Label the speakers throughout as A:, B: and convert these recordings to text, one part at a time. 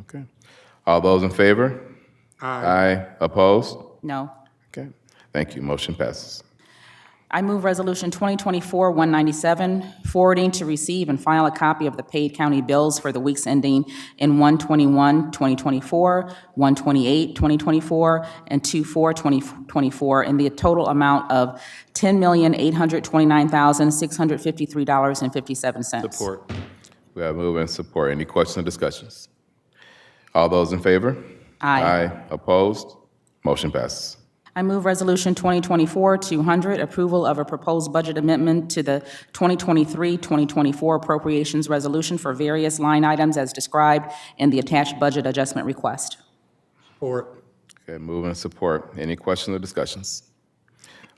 A: Okay. All those in favor? Aye. Opposed?
B: No.
A: Okay. Thank you. Motion passes.
B: I move Resolution 2024-197, forwarding to receive and file a copy of the paid county bills for the weeks ending in 1/21/2024, 1/28/2024, and 2/4/2024, in the total amount of $10,829,653.57.
C: Support.
A: We have move and support. Any questions or discussions? All those in favor?
B: Aye.
A: Opposed? Motion passes.
B: I move Resolution 2024-200, approval of a proposed budget amendment to the 2023-2024 appropriations resolution for various line items as described in the attached budget adjustment request.
C: Support.
A: Okay, move and support. Any questions or discussions?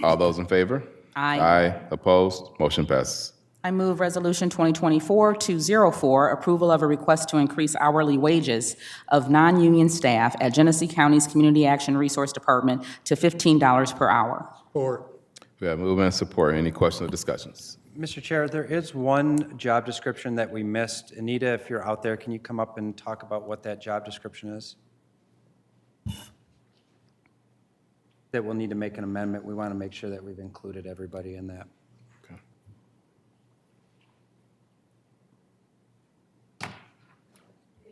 A: All those in favor?
B: Aye.
A: Aye. Opposed? Motion passes.
B: I move Resolution 2024-204, approval of a request to increase hourly wages of non-union staff at Genesee County's Community Action Resource Department to $15 per hour.
C: Support.
A: We have move and support. Any questions or discussions?
D: Mr. Chair, there is one job description that we missed. Anita, if you're out there, can you come up and talk about what that job description is? That we'll need to make an amendment. We want to make sure that we've included everybody in that.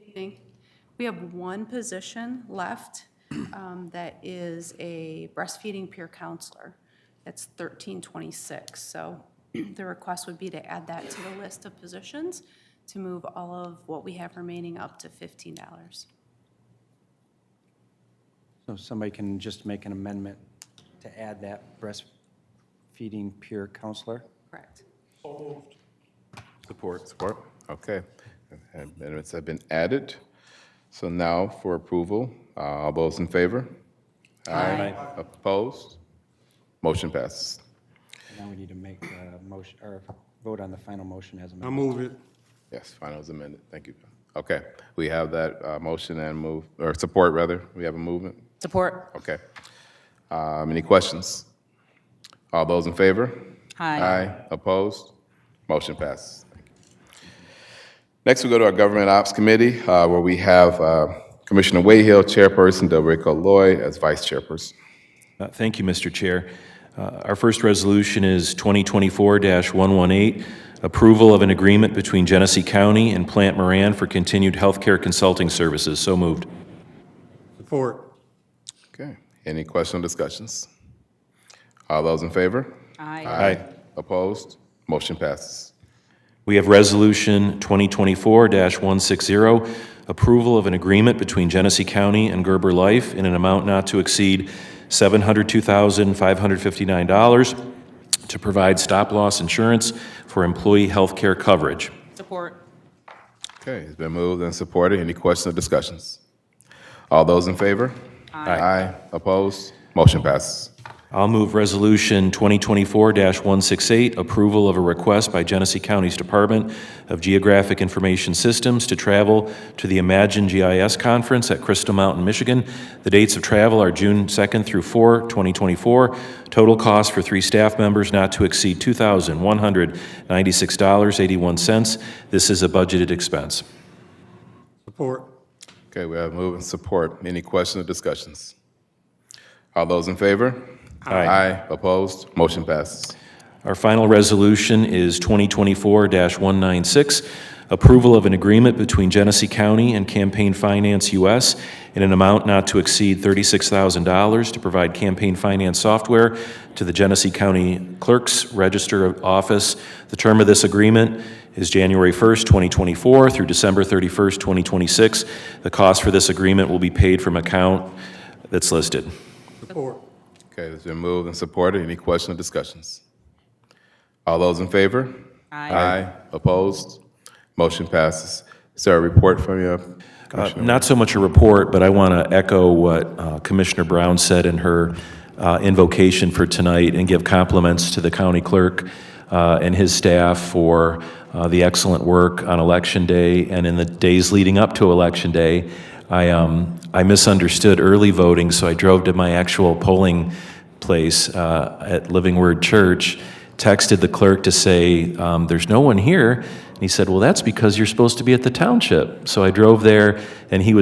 E: Evening. We have one position left um, that is a breastfeeding peer counselor. That's 1326. So the request would be to add that to the list of positions to move all of what we have remaining up to $15.
D: So somebody can just make an amendment to add that breastfeeding peer counselor?
E: Correct.
A: Support. Support. Okay. Amendments have been added. So now for approval. Uh, All those in favor? Aye. Opposed? Motion passes.
D: Now we need to make a motion, or vote on the final motion as
C: I
D: amended.
C: move it.
A: Yes, final is amended. Thank you. Okay, we have that uh, motion and move, or support, rather. We have a movement.
B: Support.
A: Okay. Um, Any questions? All those in favor?
B: Aye.
A: Opposed? Motion passes. Next, we go to our Government Ops Committee, uh, where we have uh, Commissioner Wayhill, Chairperson, Delrico Lloyd as Vice Chairperson.
F: Uh, Thank you, Mr. Chair. Uh, Our first resolution is 2024-118, approval of an agreement between Genesee County and Plant Moran for continued healthcare consulting services. So moved.
C: Support.
A: Okay, any questions or discussions? All those in favor?
B: Aye.
F: Aye.
A: Opposed? Motion passes.
F: We have Resolution 2024-160, approval of an agreement between Genesee County and Gerber Life in an amount not to exceed $702,559 to provide stop-loss insurance for employee healthcare coverage.
B: Support.
A: Okay, it's been moved and supported. Any questions or discussions? All those in favor? Aye. Aye. Opposed? Motion passes.
F: I'll move Resolution 2024-168, approval of a request by Genesee County's Department of Geographic Information Systems to travel to the Imagine GIS Conference at Crystal Mountain, Michigan. The dates of travel are June 2nd through 4, 2024. Total cost for three staff members not to exceed $2,196.81. This is a budgeted expense.
C: Support.
A: Okay, we have move and support. Any questions or discussions? All those in favor?
F: Aye.
A: Opposed? Motion passes.
F: Our final resolution is 2024-196, approval of an agreement between Genesee County and Campaign Finance US in an amount not to exceed $36,000 to provide campaign finance software to the Genesee County Clerk's Register of Office. The term of this agreement is January 1st, 2024 through December 31st, 2026. The cost for this agreement will be paid from account that's listed.
C: Support.
A: Okay, it's been moved and supported. Any questions or discussions? All those in favor? Aye. Aye. Opposed? Motion passes. Is there a report from you?
F: Uh, Not so much a report, but I want to echo what uh, Commissioner Brown said in her uh, invocation for tonight and give compliments to the county clerk uh, and his staff for uh, the excellent work on Election Day and in the days leading up to Election Day. I um, I misunderstood early voting, so I drove to my actual polling place uh, at Living Word Church, texted the clerk to say, um, There's no one here. And he said, Well, that's because you're supposed to be at the township. So I drove there, and he was.